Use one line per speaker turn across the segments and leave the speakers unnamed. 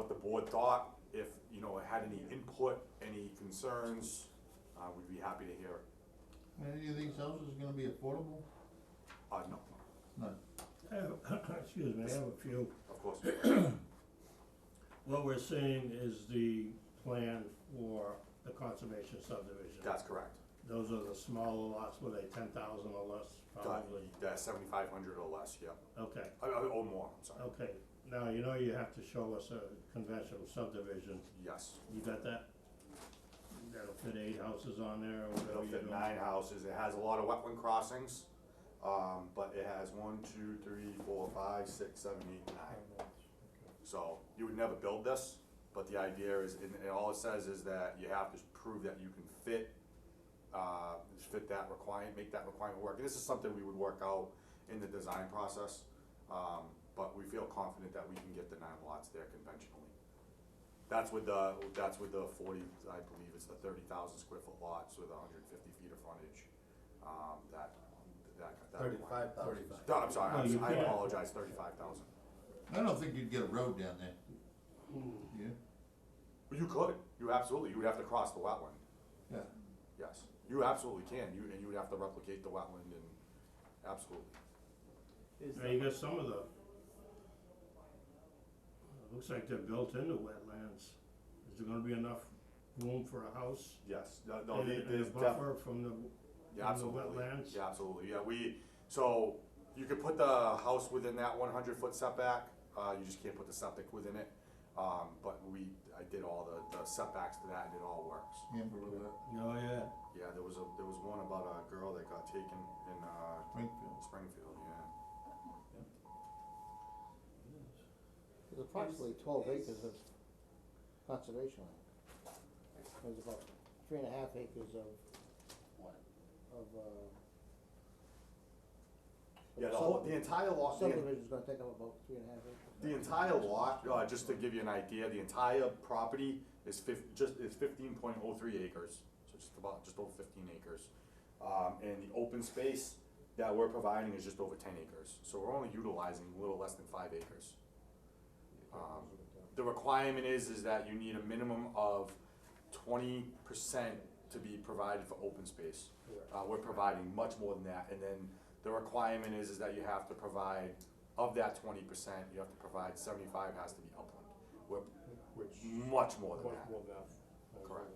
a thought, if, you know, it had any input, any concerns, uh, we'd be happy to hear it.
Any of these houses gonna be affordable?
Uh, no,
None.
I have, excuse me, I have a few.
of course.
What we're seeing is the plan for the conservation subdivision.
That's correct.
Those are the smaller lots, were they ten thousand or less,
Got-
probably?
Yeah, seventy-five hundred or less, yeah.
Okay,
Uh, uh, Or more, I'm sorry.
okay. Now, you know you have to show us a conventional subdivision.
Yes.
You got that? That'll fit eight houses on there or
It'll
whatever you're
fit
doing.
nine houses, it has a lot of wetland crossings, um, but it has one, two, three, four, five, six, seven, eight, nine. So, you would never build this, but the idea is, and, and all it says is that you have to prove that you can fit, uh, fit that requirement, make that requirement work, and this is something we would work out in the design process, um, but we feel confident that we can get the nine lots there conventionally. That's with the, that's with the forty, I believe it's the thirty thousand square foot lots with hundred and fifty feet of frontage, um, that, that, that.
Thirty-five thousand.
No, I'm sorry,
No, you
I- I
can't.
apologize, thirty-five thousand.
I don't think you'd get a road down there.
Hmm.
Yeah?
You could, you absolutely, you would have to cross the wetland,
Yeah.
yes, you absolutely can, you, and you would have to replicate the wetland and, absolutely.
Is
Now, you got some of the, it looks like they're built into wetlands. Is there gonna be enough room for a house?
Yes, no,
and a- and a buffer from the,
Yeah,
from the
absolutely.
wetlands?
Yeah, absolutely, yeah, we, so, you could put the house within that one hundred foot setback, uh, you just can't put the septic within it. Um, but we, I did all the, the setbacks to that and it all works.
Amber Road,
Oh, yeah.
Yeah, there was a, there was one about a girl that got taken in, uh,
Springfield.
Springfield, yeah.
There's approximately twelve acres of conservation land. There's about three and a half acres of, of, uh.
Yeah, the whole, the entire lot, the, en-
Subdivision's gonna take up about three and a half acres.
the entire lot, uh, just to give you an idea, the entire property is fif- just, is fifteen point oh three acres. So just about, just over fifteen acres. Um, and the open space that we're providing is just over ten acres, so we're only utilizing a little less than five acres. Um, the requirement is, is that you need a minimum of twenty percent to be provided for open space. Uh, we're providing much more than that, and then the requirement is, is that you have to provide, of that twenty percent, you have to provide seventy-five has to be upland. We're
Which,
much more than
much
that,
more than.
Correct.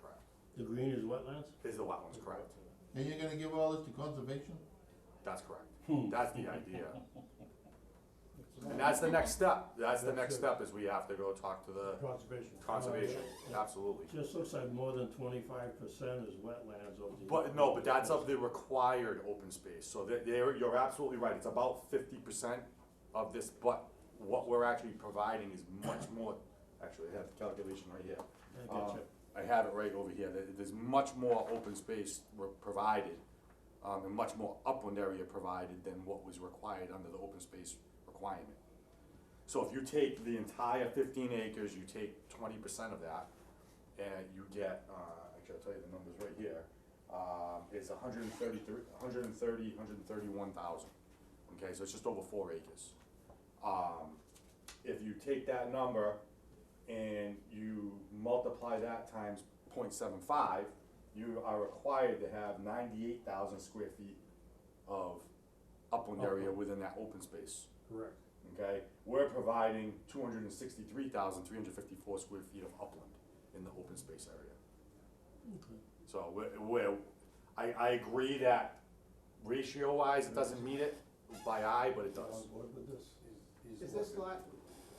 correct,
The green is wetlands?
is the wetlands correct?
And you're gonna give all this to conservation?
That's correct. That's the idea. And that's the next step. That's the next step is we have to go talk to the
Conservation.
conservation, absolutely.
Just looks like more than twenty-five percent is wetlands over the.
But no, but that's of the required open space. So that there, you're absolutely right. It's about fifty percent of this, but what we're actually providing is much more. Actually, I have the calculation right here.
I
Uh,
get you.
I have it right over here. There- There's much more open space re- provided, um, and much more upland area provided than what was required under the open space requirement. So if you take the entire fifteen acres, you take twenty percent of that, and you get, uh, actually, I'll tell you the numbers right here, um, is a hundred and thirty-three, hundred and thirty, hundred and thirty-one thousand. Okay, so it's just over four acres. Um, if you take that number and you multiply that times 0.75, you are required to have ninety-eight thousand square feet of upland area within that open space
Correct.
okay? We're providing two hundred and sixty-three thousand, three hundred fifty-four square feet of upland in the open space area. So we're, we're, I, I agree that ratio-wise, it doesn't meet it by eye, but it does.
Is this lot,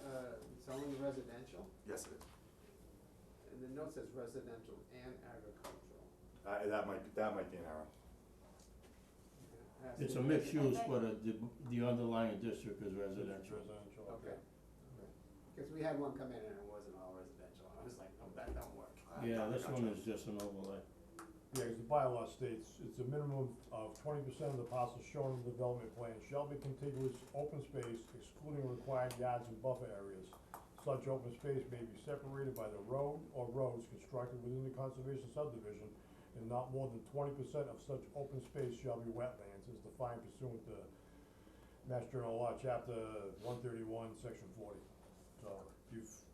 uh, it's only residential?
Yes, it is.
And the note says residential and agricultural.
Uh, that might, be- that might be an error.
And it has
It's
to
a
be
mixed
residential.
use, but it- the, the underlying district is residential.
Residential.
Okay. Cause we had one come in and it wasn't all residential, and I was like, no, that don't work.
Yeah, this one is just an overlay.
Yeah, 'cause the bylaw states, it's a minimum of twenty percent of the parcels shown in the development plan shall be contiguous open space excluding required yards and buffer areas. Such open space may be separated by the road or roads constructed within the conservation subdivision, and not more than twenty percent of such open space shall be wetlands, as defined pursuant to Mass General Law, Chapter one thirty-one, Section forty. So, if you've